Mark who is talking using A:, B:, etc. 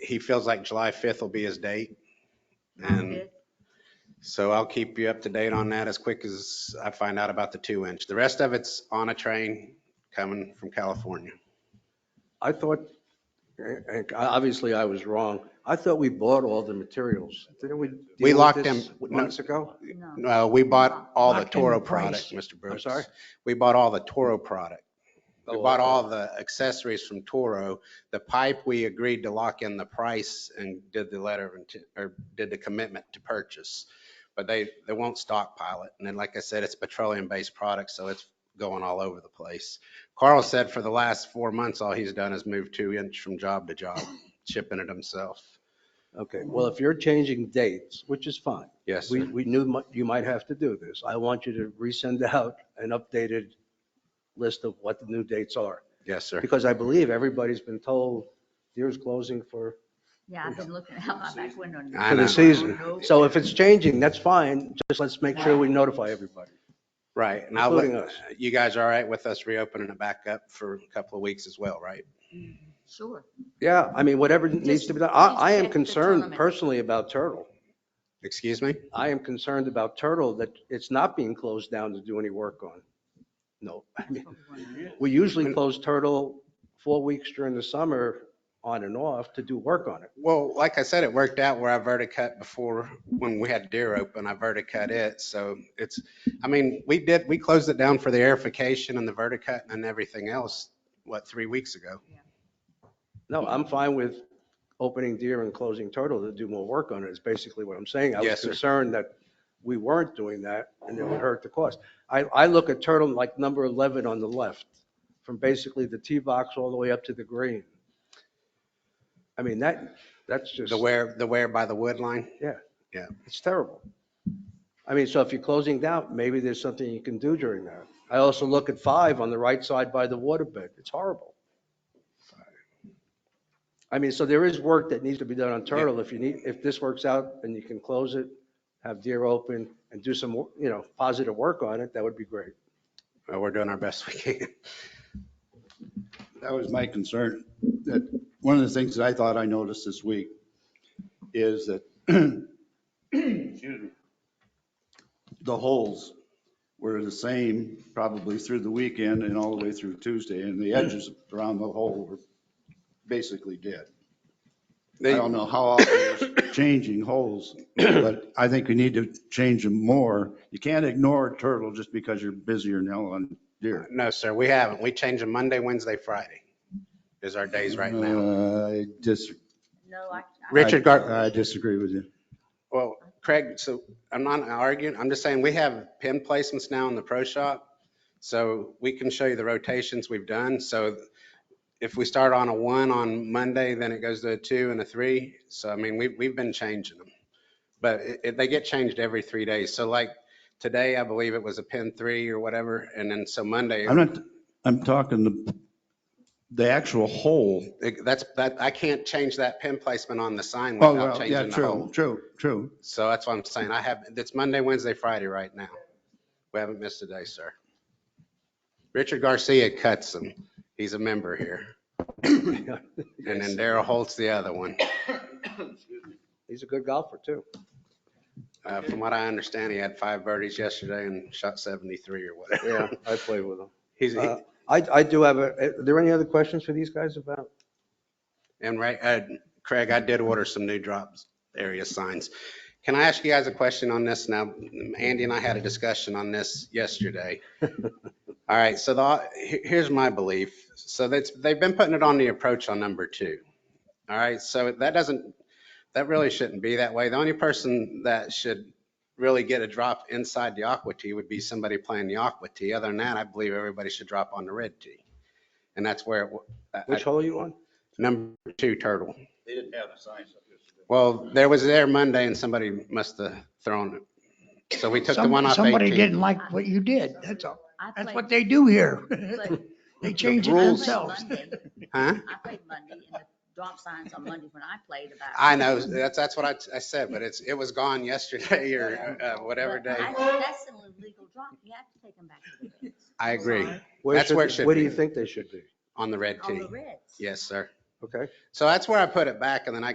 A: he feels like July 5th will be his date.
B: Sounds
A: And
B: good.
A: so I'll keep you up to date on that as quick as I find out about the two inch. The rest of it's on a train coming from California.
C: I thought, and- and obviously I was wrong. I thought we bought all the materials. Didn't we? deal with
A: locked
C: this
A: them- no.
C: Months ago?
B: No.
A: No, we bought all the
C: Locked in
A: Toro
C: the price.
A: product, Mr. Brooks.
C: sorry?
A: We bought all the Toro product. We
C: Oh,
A: bought
C: okay.
A: all the accessories from Toro. The pipe, we agreed to lock in the price and did the letter of intent, or did the commitment to purchase. But they, they won't stockpile it. And then, like I said, it's petroleum-based product, so it's going all over the place. Carl said for the last four months, all he's done is move two inch from job to job, shipping it himself.
C: Okay, well, if you're changing dates, which is fine.
A: Yes,
C: We,
A: sir.
C: we knew mi- you might have to do this. I want you to resend out an updated list of what the new dates are.
A: Yes, sir.
C: Because I believe everybody's been told Deere's closing for,
B: Yeah, I've been looking out my back window.
A: I
C: for
A: know.
C: the season.
B: Nope.
C: So if it's changing, that's fine. Just let's make sure we notify everybody.
A: Right. And I'll,
C: Including
A: let-
C: us.
A: you guys are all right with us reopening it back up for a couple of weeks as well, right?
B: Sure.
C: Yeah, I mean, whatever needs to be done. I, I
B: Just- just check
C: am
B: the
C: concerned
B: tournament.
C: personally about Turtle.
A: Excuse me?
C: I am concerned about Turtle that it's not being closed down to do any work on. No, I mean, we usually close Turtle four weeks during the summer on and off to do work on it.
A: Well, like I said, it worked out where I verticut before, when we had deer open, I verticut it. So it's, I mean, we did, we closed it down for the airification and the verticut and everything else, what, three weeks ago?
C: No, I'm fine with opening Deer and closing Turtle to do more work on it, is basically what I'm saying. I was
A: Yes, sir.
C: concerned that we weren't doing that and it would hurt the cost. I, I look at Turtle like number 11 on the left, from basically the tee box all the way up to the green. I mean, that, that's just,
A: The where, the where by the wood line?
C: it's terrible. I mean, so if you're closing down, maybe there's something you can do during that. I also look at five on the right side by the waterbed. It's horrible. I mean, so there is work that needs to be done on Turtle. If you need, if this works out and you can close it, have deer open and do some, you know, positive work on it, that would be great.
A: Uh, We're doing our best we can.
D: That was my concern, that one of the things that I thought I noticed this week is that, excuse me, the holes were the same probably through the weekend and all the way through Tuesday, and
A: Hmm.
D: the edges around the hole were basically dead. I don't know how often it's changing holes, but I think we need to change them more. You can't ignore turtle just because you're busier now on deer.
A: No, sir, we haven't. We change them Monday, Wednesday, Friday is our days right now.
D: Uh, I dis-
B: No, I. I-
A: Richard Gar-
D: I disagree with you.
A: Well, Craig, so I'm not arguing, I'm just saying we have pin placements now in the pro shop. So we can show you the rotations we've done. So if we start on a one on Monday, then it goes to a two and a three. So I mean, we've, we've been changing them. But it, it- they get changed every three days. So like today, I believe it was a pin three or whatever. And then so Monday,
D: I'm not, I'm talking the, the actual hole.
A: it- that's, that, I can't change that pin placement on the sign without
D: Oh, well, yeah,
A: changing the
D: true,
A: whole.
D: true, true.
A: So that's what I'm saying. I have, it's Monday, Wednesday, Friday right now. We haven't missed a day, sir. Richard Garcia cuts them. He's a member here. And then Daryl Holt's the other one.
C: He's a good golfer too.
A: Uh, From what I understand, he had five birdies yesterday and shot 73 or
C: Yeah,
A: whatever.
C: I play with him.
A: He's, he-
C: Uh, I, I do have a, are there any other questions for these guys about?
A: and right, uh, Craig, I did order some new drops area signs. Can I ask you guys a question on this now? Andy and I had a discussion on this yesterday. All right, so the, he- here's my belief. So that's, they've been putting it on the approach on number two. All right, so that doesn't, that really shouldn't be that way. The only person that should really get a drop inside the aqua tee would be somebody playing the aqua tee. Other than that, I believe everybody should drop on the red tee. And that's where, it w- I- I-
C: Which hole are you on?
A: number two turtle.
D: They didn't have the signs up yesterday.
A: Well, there was there Monday and somebody must have thrown it. So we took the
E: Some-
A: one off
E: Somebody
A: 18.
E: didn't like what you did, that's all.
B: I
E: That's
B: played-
E: what they do here.
B: But-
E: They change it
B: I played
A: rules.
E: themselves.
B: Monday.
A: Huh?
B: I played Monday and the drop signs on Monday when I played about.
A: I know, that's, that's what I, I said, but it's, it was gone yesterday or uh, whatever
B: But
A: day.
B: I think That's an illegal drop. You have to take them back to the reds.
A: I agree,
C: Where
A: That's where it should
C: Where do
A: be.
C: you think they should be?
A: on the red
B: On
A: tee.
B: the reds.
A: Yes, sir.
C: Okay?
A: So that's where I put it back and then I